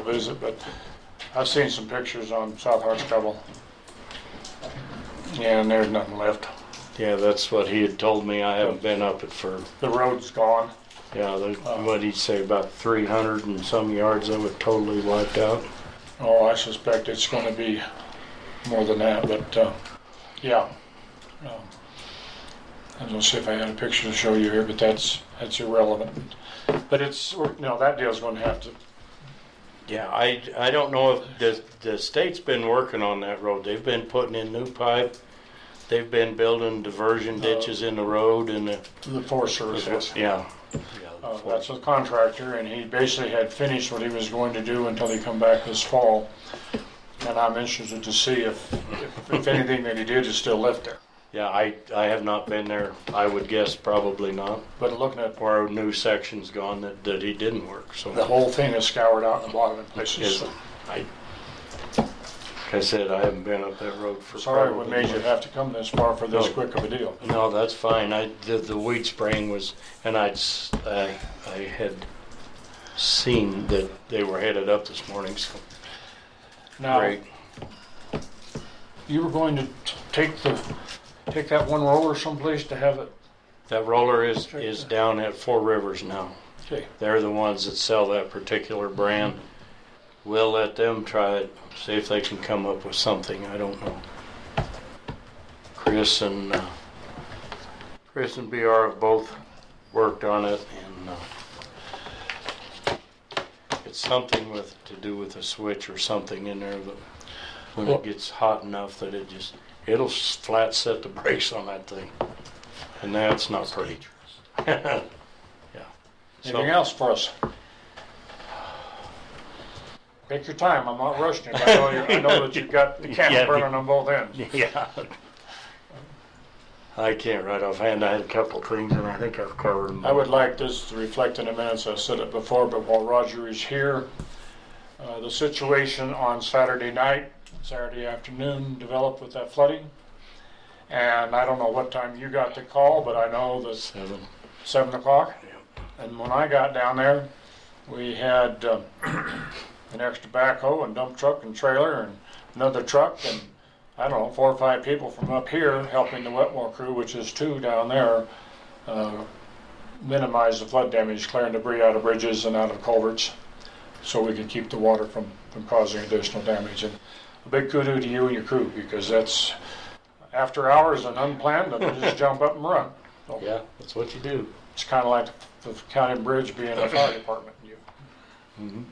go visit, but I've seen some pictures on South Hartscrabble. Yeah, and there's nothing left. Yeah, that's what he had told me. I haven't been up it for, The road's gone. yeah, the- what'd he say, about 300 and some yards of it totally wiped out? Oh, I suspect it's gonna be more than that, but, uh, yeah. Um, I don't see if I had a picture to show you here, but that's, that's irrelevant. But it's, you know, that deal's gonna have to, Yeah, I, I don't know if the, the state's been working on that road. They've been putting in new pipe. They've been building diversion ditches in the road and the, the Forest Service has. yeah. Uh, That's a contractor, and he basically had finished what he was going to do until he come back this fall. And I'm interested to see if, if- if anything that he did is still left there. Yeah, I, I have not been there. I would guess probably not. But looking at Or a new section's gone that, that he didn't work, so. the whole thing is scoured out in the bottom in places. Yes, so I, like I said, I haven't been up that road for Sorry probably we made you have to come this far for this No. quick of a deal. No, that's fine. I the, the weed spraying was, and I'd s- I I had seen that they were headed up this morning. So Now, great. you were going to t- take the, take that one roller someplace to have it, That roller is is down at Four Rivers now. okay, They're the ones that sell that particular brand. We'll let them try it. See if they can come up with something. I don't know. Chris and uh, Chris and BR have both worked on it, and uh, it's something with to do with a switch or something in there that when Well- it gets hot enough that it just it'll s- flat set the brakes on that thing, and that's not pretty. yeah. So- anything else for us? Take your time, I'm not rushing you, but I know you- I know that you've got the Yeah. candle burning on both ends. Yeah. I can't right offhand. I had a couple things and I think I've covered them. I would like this to reflect in the minutes, I said it before, but while Roger is here, uh, the situation on Saturday night, Saturday afternoon developed with that flooding. And I don't know what time you got the call, but I know that Seven. seven o'clock. And when I got down there, we had um, an extra backhoe and dump truck and trailer and another truck and, I don't know, four or five people from up here helping the Wetmore crew, which is two down there, uh, minimize the flood damage, clearing debris out of bridges and out of culverts so we can keep the water from, from causing additional damage. And a big kudo to you and your crew because that's after hours and unplanned and just jump up and run. So- Yeah, that's what you do. it's kind of like the county bridge being a fire department. You- Mhm.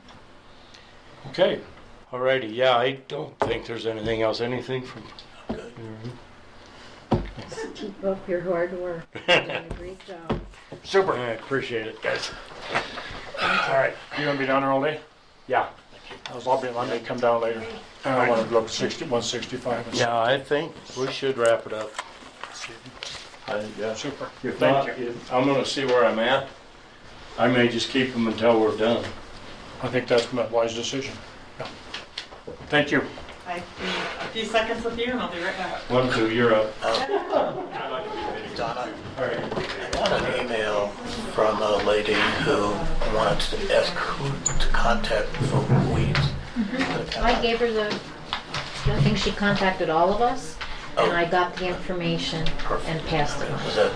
Okay, Alrighty, yeah, I don't think there's anything else. Anything from? Keep up your hard work. You're doing a great job. Super. I appreciate it, guys. all right. You gonna be down there all day? Yeah. I was lobbying, I may come down later. And I wanna look sixty, one sixty-five. Yeah, I think we should wrap it up. I, yeah. Super. If Thank not, if, I'm gonna see where I'm at. I may just keep them until we're done. I think that's a wise decision. Yeah. Thank you. I think a few seconds with you and I'll be right back. One, two, you're up. Donna, I got an email from a lady who wanted to ask who to contact for weeds. I gave her the, I think she contacted all of us, Oh. and I got the information and passed it on. Was that,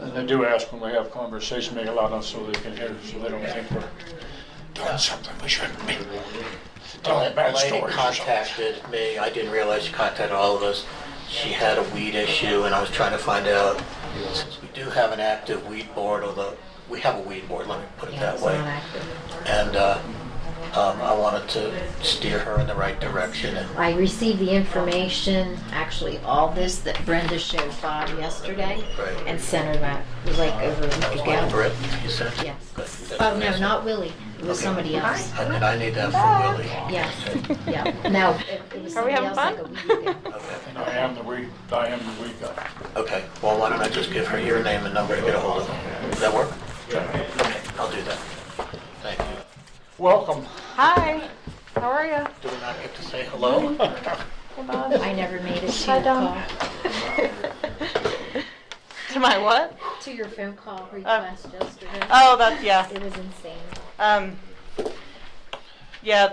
uh, And I do ask when we have conversation, make it loud enough so they can hear, so they don't think we're doing something we shouldn't be. Telling a Oh, bad lady stories. or something. contacted me, I didn't realize she contacted all of us. She had a weed issue and I was trying to find out, since we do have an active weed board, although, we have a weed board, let me put it Yeah, that it's way. not active. And, uh, um, I wanted to steer her in the right direction and I received the information, actually, all this that Brenda showed Bob yesterday, Right. and sent her that, it was like over a week ago. Britt, you said? Good. Yes. Oh, no, not Willie, it was somebody else. And then I need that for Willie. Yes, yeah, no, it it was Are somebody we having else like a fun? week ago. Okay. And I am the weak, I am the weak guy. Okay, well, why don't I just give her your name and number to get a hold of? Does that work? Okay, I'll do that. Thank you. Welcome. Hi, how are you? Do we not get to say hello? Hey, Bob. I never made it to Hi, your call, Dawn. to my what? to your phone call request yesterday. Oh, that's yeah. It was insane. Um, Yeah,